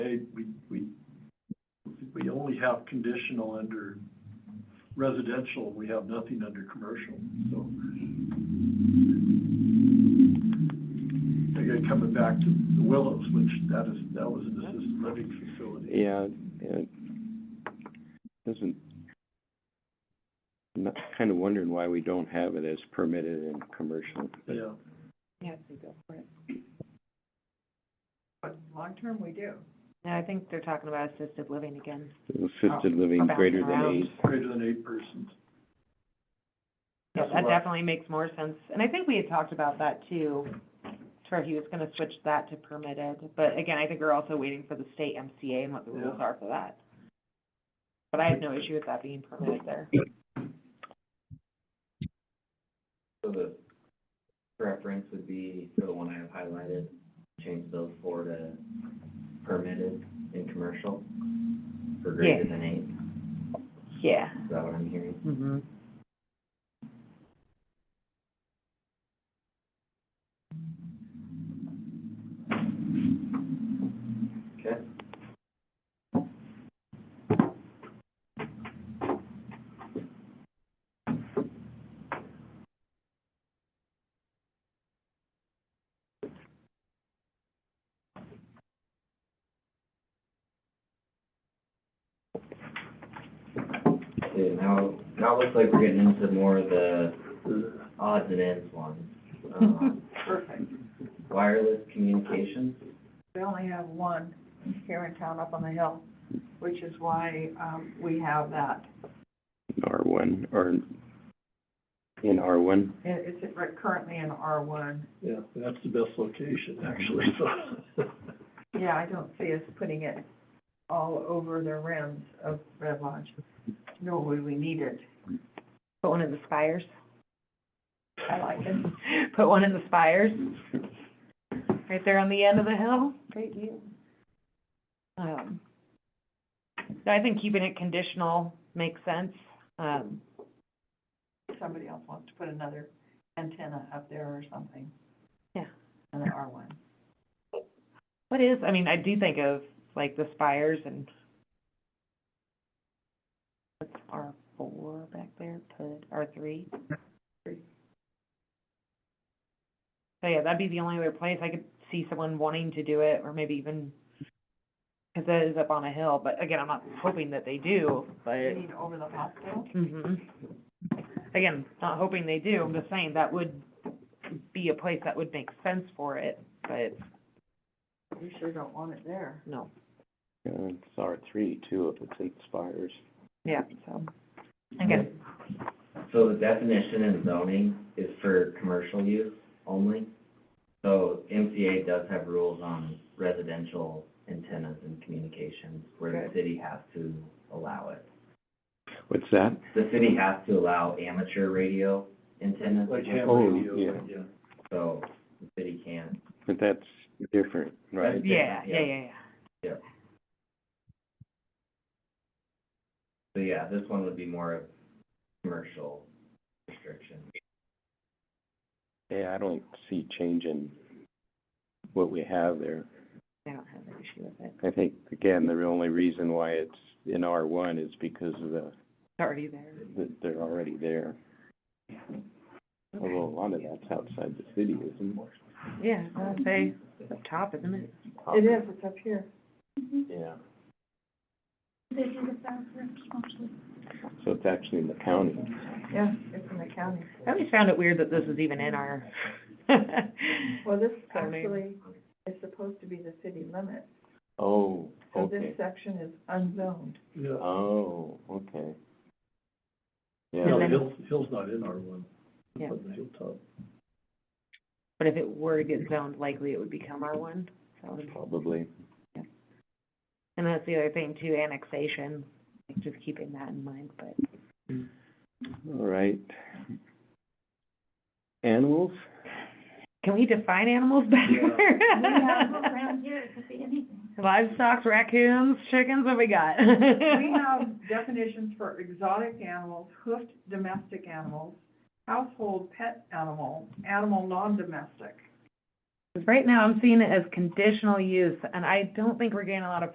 have conditional under residential, we have nothing under commercial, so. Again, coming back to the Willows, which that is, that was an assisted living facility. Yeah, it doesn't, I'm not, kind of wondering why we don't have it as permitted in commercial. but- Yeah, Yes, we go for it. Long-term, we do. Yeah, I think they're talking about assisted living again. Assisted living back greater than around. eight. greater than eight persons. uh, Yeah, That's that what- definitely makes more sense. And I think we had talked about that too, to where he was gonna switch that to permitted. But again, I think we're also waiting for the state MCA and what the rules Yeah. are for that. But I have no issue with that being permitted there. So the preference would be for the one I have highlighted, change those four to permitted in commercial for greater Yeah. than eight, Yeah. is that what I'm hearing? Mm-hmm. Okay. Okay, now, now it looks like we're getting into more of the odds and ends ones. Um, Perfect. Wireless communications, We only have one here in town up on the hill, which is why, um, we have that. R one, or in R one. It, it's right- currently in R one. Yeah, that's the best location, actually, so. Yeah, I don't see us putting it all over the rims of Red Lodge, nor would we need it. Put one in the spires. I like it. Put one in the spires. Right there on the end of the hill. Great view. Um, so I think keeping it conditional makes sense. Um, Somebody else wants to put another antenna up there or something. Yeah. In R one. what is, I mean, I do think of like the spires and what's R four back there, put R three. So yeah, that'd be the only other place I could see someone wanting to do it or maybe even, cause that is up on a hill, but again, I'm not hoping that they do, You but. mean over the hospital? hmm Again, not hoping they do, I'm just saying that would be a place that would make sense for it, but We sure don't want it there. no, Uh, it's R three too, if it expires. yeah, so. Again, So the definition in zoning is for commercial use only. So MCA does have rules on residential antennas and communications where the Good. city has to allow it. What's that? The city has to allow amateur radio antennas, Like ham Oh, radio, yeah. yeah. so the city can't. But that's different, right? yeah, yeah, yeah, different, yeah. yeah. So yeah, this one would be more of commercial restriction. Yeah, I don't see changing what we have there. I don't have an issue with it, I think, again, the only reason why it's in R one is because of the, it's already there. that they're already there. Although a lot of that's outside the city, isn't it? Yeah, I'll say, it's up top, isn't it? It is, it's up here. Yeah. So it's actually in the county. Yeah, it's in the county. I always found it weird that this is even in our. Well, this I mean- actually is supposed to be the city limit, Oh, so this section is unzoned. Yeah, Oh, okay. yeah, the then- hill's, hill's not in R one, Yeah, but the hilltop. but if it were to get zoned, likely it would become our one, so. Probably. And that's the other thing too, annexation, like, just keeping that in mind, but. All right. Animals? Can we define animals better? here, it could be anything. Livestock, raccoons, chickens, what we got? We have definitions for exotic animals, hoofed domestic animals, household pet animal, animal non-domestic. Right now, I'm seeing it as conditional use, and I don't think we're getting a lot of